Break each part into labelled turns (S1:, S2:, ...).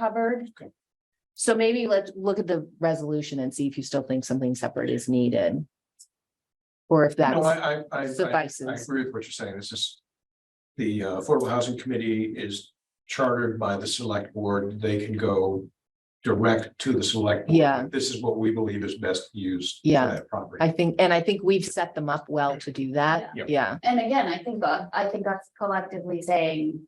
S1: covered.
S2: Okay.
S1: So maybe let's look at the resolution and see if you still think something separate is needed. Or if
S2: No,
S1: that
S2: I, I, I, I- I
S1: suffices.
S2: agree with what you're saying. This is. The uh, Affordable Housing Committee is chartered by the select board. They can go. Direct to the select. board.
S1: Yeah.
S2: This is what we believe is best used. for
S1: Yeah.
S2: that Property.
S1: I think, and I think we've set them up well to do that.
S2: Yeah.
S1: Yeah,
S3: And again, I think, uh, I think us collectively saying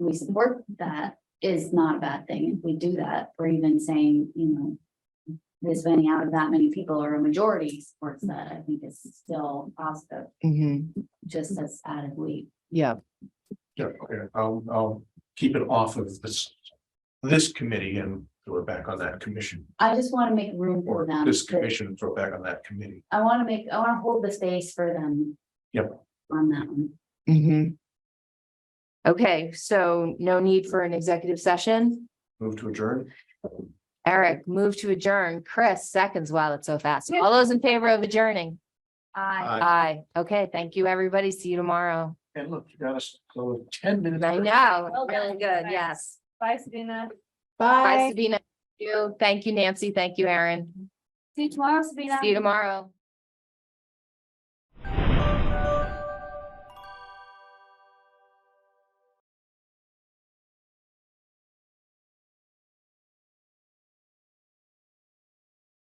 S3: we support that is not a bad thing. If we do that, or even saying, you know, this many out of that many people or a majority supports that, I think is still positive,
S1: Mhm.
S3: just as added we.
S1: yeah,
S2: Yeah, okay, I'll, I'll keep it off of this. This committee and throw it back on that commission
S3: I just want to make room for
S2: or
S3: them.
S2: this
S3: to-
S2: commission and throw it back on that committee.
S3: I want to make, I want to hold the space for them.
S2: Yep.
S3: On that one.
S1: mhm. Okay, so no need for an executive session.
S2: Move to adjourn.
S1: Eric, move to adjourn. Chris, seconds while it's so fast. All those in favor of adjourning?
S3: I.
S1: Aye. Okay, thank you, everybody. See you tomorrow.
S2: Uh, And look, you got us, so ten minutes.
S1: I
S2: early.
S1: know,
S3: Well
S1: really
S3: done.
S1: good,
S3: Bye.
S1: yes.
S3: Bye, Sabina.
S1: Bye, Sabina. Thank You, thank you, Nancy. Thank you, Aaron.
S3: See you tomorrow, Sabina.
S1: See you tomorrow.